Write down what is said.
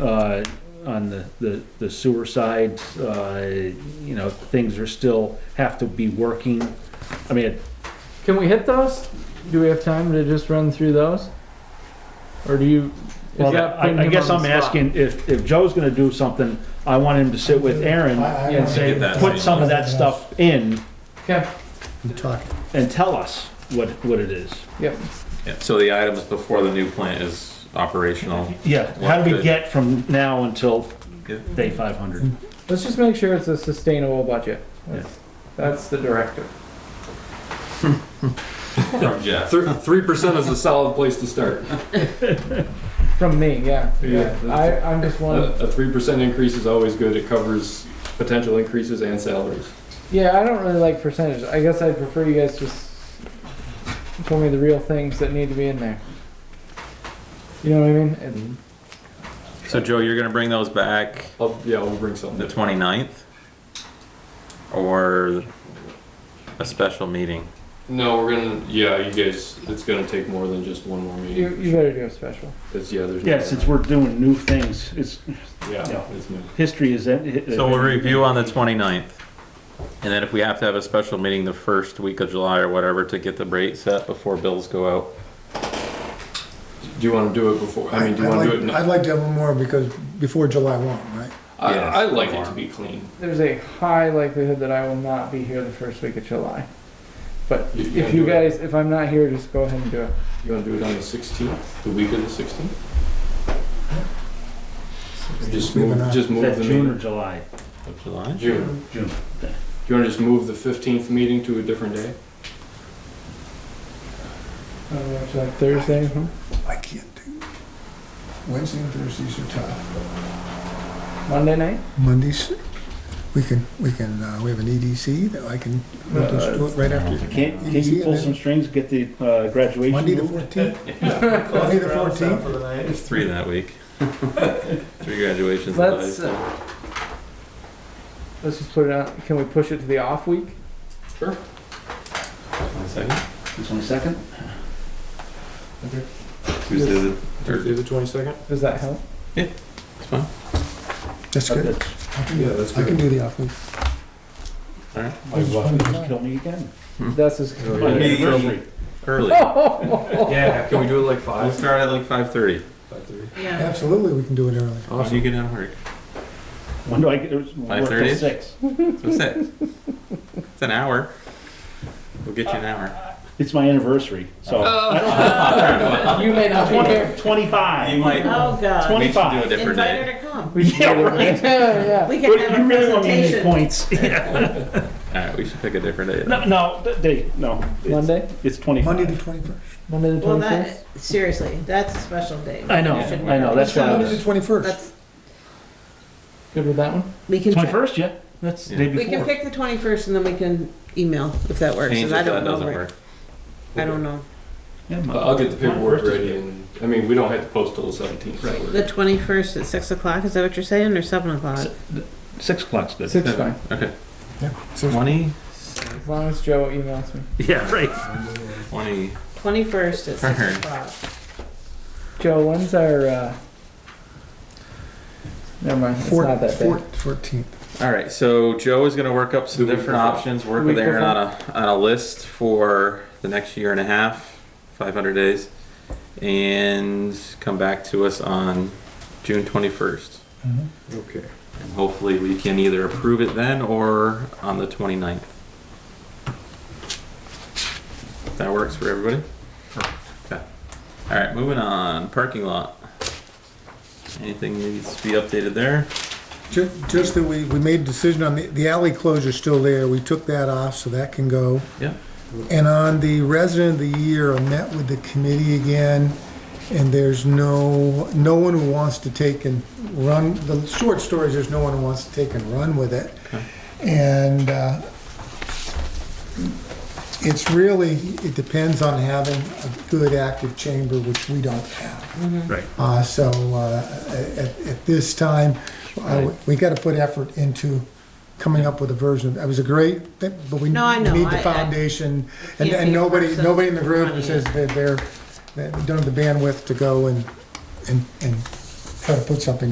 uh, on the, the the sewer side, uh, you know, things are still, have to be working. I mean, Can we hit those? Do we have time to just run through those? Or do you? is well, that putting I, I him guess on I'm the spot? asking if, if Joe's gonna do something, I want him to sit with Aaron I- I- and I say, get that. put some of that stuff in Okay, We talked. and tell us what, what it is. yep. Yeah, so the items before the new plant is operational. Yeah, how do we What- get from now until Yeah. day five hundred? Let's just make sure it's a sustainable budget. Yeah. That's the directive. From Jeff. Three percent is a solid place to start. From me, yeah. Yeah, I, that's- I'm just one. A three percent increase is always good. It covers potential increases and salaries. Yeah, I don't really like percentages. I guess I'd prefer you guys just tell me the real things that need to be in there. You know what I mean? And Mm-hmm. So Joe, you're gonna bring those back I'll, yeah, we'll bring the something. 29th? Or a special meeting? No, we're gonna, yeah, you guys, it's gonna take more than just one more you, meeting. you better do a special. It's, yeah, there's. Yeah, since we're doing new things, it's, Yeah, yeah. it's new. history is. en- So we'll review on the 29th. And then if we have to have a special meeting the first week of July or whatever to get the rate set before bills go out. Do you wanna do it before, I mean, do you I'd wanna do like- it? I'd now? like to have one more because, before July one, right? I, Yeah. I like it to be clean. There's a high likelihood that I will not be here the first week of July. But You- you if wanna you do it- guys, if I'm not here, just go ahead and do it. You wanna do it on the sixteenth, the week of the sixteenth? Just Leave it move, on. just Is move that the June or meeting. July? Of July? June. June. Do you wanna just move the fifteenth meeting to a different day? I don't know, it's like Thursday, huh? I can't do. Wednesday and Thursdays are tough. Monday night? Mondays, we can, we can, uh, we have an EDC that I can, we can just do it right after. Can't, can you pull some strings, get the uh, graduation? Monday the moved? fourteenth? Monday the fourteenth? There's three that week. Three graduations. in high Let's, school. uh, let's just put it out, can we push it to the off week? Sure. One second. The twenty-second? Tuesday the Tuesday third. the twenty-second? Does that help? It's fine. That's good. I can do- Yeah, that's I can good. do the off week. My wife would just kill me again. That's as. Oh, My yeah. anniversary. Early. Yeah, can we do it like We'll five? start at like 5:30. Five thirty. Yeah. Absolutely, we can do it early. Awesome. You get out of work. When do I get, it was work 5:30? till six. So six. It's an hour. We'll get you an hour. It's my anniversary, so. Oh. You may not be here. You Twenty-five. might. Oh, God. we should do a 25. different Invite her day. to come. Yeah, right. Yeah, We You can have a really want me to make presentation. points. Yeah. All right, we should pick a different day. No, no, th- they, no. yeah. It's- Monday, It's Monday the twenty-five. twenty-first. Monday the Well, twenty-fifth? that, seriously, that's a special day. I know, You should I know, that's know. why. Monday the twenty-first. That's, Good with that one? we can, check. Twenty-first, yeah, that's the Yeah. day we can before. pick the twenty-first and then we can email if that works. Change if 'cause I that don't know doesn't where- work. I don't know. Yeah, Uh, my- I'll get the paperwork 21st is ready good. and, I mean, we don't have to post till the seventeenth. The twenty-first at six o'clock, is that what you're saying, or seven o'clock? S- Six o'clock's good. Six fine, Okay. Yeah. 20, as long as Joe emails me. Yeah, right. 20. Twenty-first at Alright. six o'clock. Joe, when's our, uh? Never mind, it's not that bad. Fourteenth. All right, so Joe is going to work up some The week different before. options, work The with week Aaron on a, on a list for the next year and a half, 500 days, and come back to us on June 21st. Okay. And hopefully we can either approve it then or on the 29th. If That works for everybody? Okay. All right, moving on, parking lot. Anything needs to be updated there? Ju- Just that we, we made a decision on the, the alley closure's still there, we took that off, so that can go. Yeah. And on the resident of the year, I met with the committee again, and there's no, no one who wants to take and run, the short story is there's no one who wants to take and run with it. And, uh, it's really, it depends on having a good active chamber, which we don't have. Right. Uh, so, uh, at, at this time, I would- we gotta put effort into coming up with a version. It was a great, thing, but we No, I know. need the I- I- foundation. And, Can't be and a nobody, person nobody in the group running it. says that they're, that they don't have the bandwidth to go and, and, and try to put something